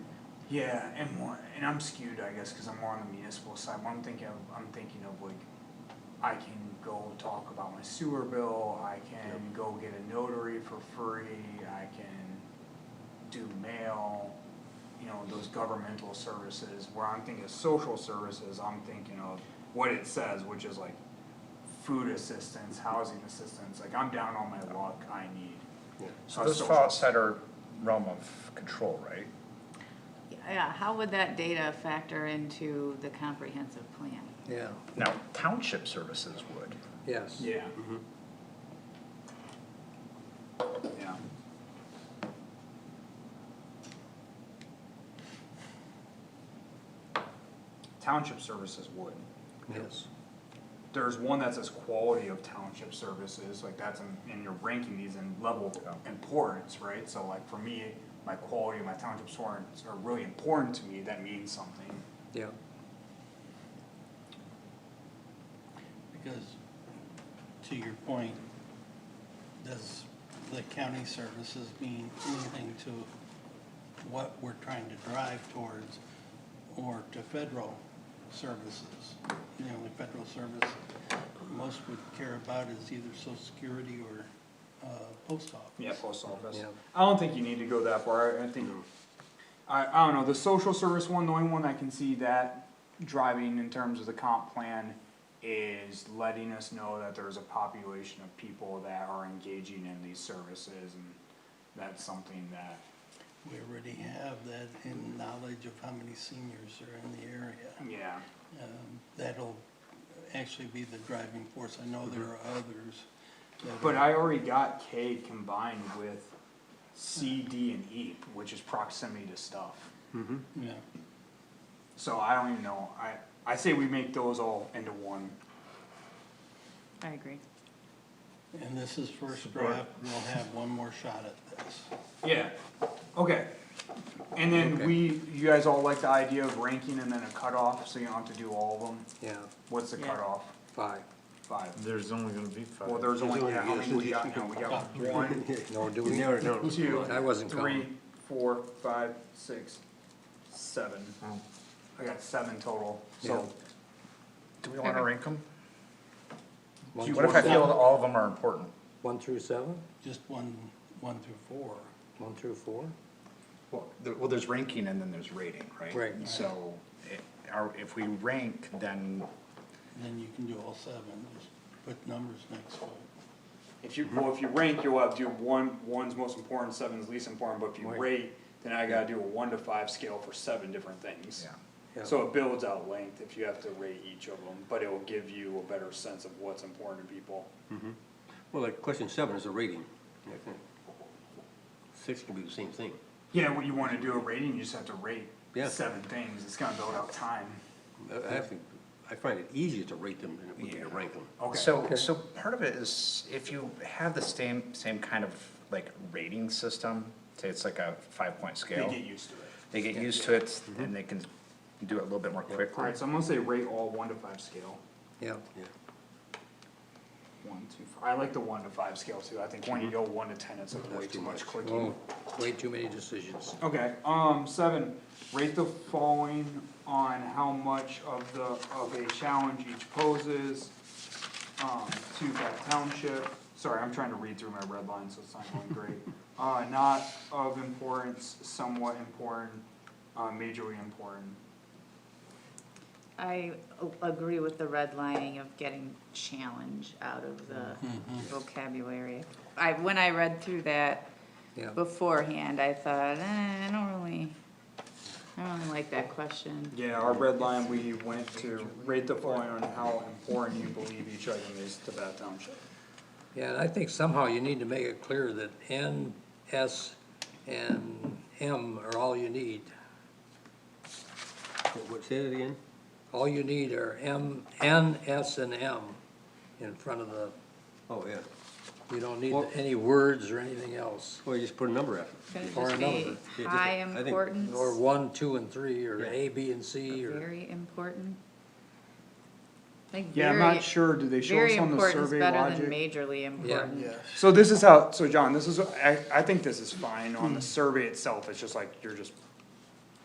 Yeah, and more, and I'm skewed, I guess, cause I'm more on the municipal side, but I'm thinking, of- I'm thinking of like, I can go talk about my sewer bill, I can go get a notary for free, I can do mail, you know, those governmental services, where I'm thinking of social services, I'm thinking of what it says, which is like food assistance, housing assistance, like I'm down on my luck, I need. So a this social- falls outside our realm of control, right? Yeah, how would that data factor into the comprehensive plan? Yeah, Now, township services would. yes. Yeah. Yeah. Township services would. Yes. There's one that says quality of township services, like that's in, and you're ranking these in level of importance, right? So like for me, my quality of my township services are really important to me, that means something. Yeah, Because, to your point, does the county services mean anything to what we're trying to drive towards or to federal services? The only federal service most would care about is either social security or, uh, post office. Yeah, post office. Yeah. I don't think you need to go that far, I I think, I, I don't know, the social service one, the only one I can see that driving in terms of the comp plan is letting us know that there's a population of people that are engaging in these services, and that's something that, We already have that in knowledge of how many seniors are in the area. yeah, um, that'll actually be the driving force. I know there are others. that but are- I already got K combined with C, D, and E, which is proximity to stuff. Yeah, So I don't even know, I, I say we make those all into one, I agree. and this is first Support. draft, we'll have one more shot at this. Yeah, okay. And then we, you guys all like the idea of ranking and then a cutoff, so you don't have to do all of them? yeah, What's the Yeah. cutoff? five. Five? There's only gonna be Well, five. there's only, only- yeah, how yes, many we yes, got you now? We got one, No, do we? No, no. two, I wasn't three, counting. four, five, six, seven. Oh. I got seven total, so, Do we wanna rank them? One You What through- if I feel that all of them are important? One through seven, Just one, one through four. one through four? Well, there, well, there's ranking and then there's rating, right? Right. And So, it, our, if we rank, then, And then you can do all seven, just put numbers next to it. if you, well, if you rank, you'll have to do one, one's most important, seven's least important, but if you Right. rate, then I gotta do a one to five scale for seven different things. yeah. Yeah. So it builds out length if you have to rate each of them, but it will give you a better sense of what's important to people. Well, like question seven is a rating, I think. Six can be the same thing. Yeah, when you wanna do a rating, you just have to rate Yeah. seven things, it's gonna build out time. I- I actually, I find it easier to rate them than it would be to rank them. Okay, So, so part of it is if you have the same, same kind of like rating system, say it's like a five-point they scale. get used to it. They get used to it and they can do it a little bit more quickly. Alright, so I'm gonna say rate all one to five scale. Yeah, Yeah. One, two, five. I like the one to five scale too, I think when you go one to ten, it's like way Mm-hmm. That's too too much clicking. oh, way too many decisions. Okay, um, seven, rate the following on how much of the, of a challenge each poses, um, to that township. Sorry, I'm trying to read through my red line, so it's not going great. Uh, not of importance, somewhat important, uh, majorly important. I a- agree with the redlining of getting challenge out of the vocabulary. I, when I read through that Yeah. beforehand, I thought, eh, I don't really, I don't really like that question. Yeah, our red line, we went to rate the following on how important you believe each item is to that township. Yeah, and I think somehow you need to make it clear that N, S, and M are all you need. What- What, say that again? All you need are M, N, S, and M in front of the, Oh, yeah. you don't need Well- any words or anything else. Well, you just put a number after it. Could it Or just another. be Yeah, just- high I think- importance, Or one, two, and three, or Yeah. A, B, and C, or. very important? I think Yeah, I'm very- not sure, do they show Very us on the important is survey better logic? than majorly important. Yes. So this is how, so John, this is, I, I think this is fine on the survey itself, it's just like, you're just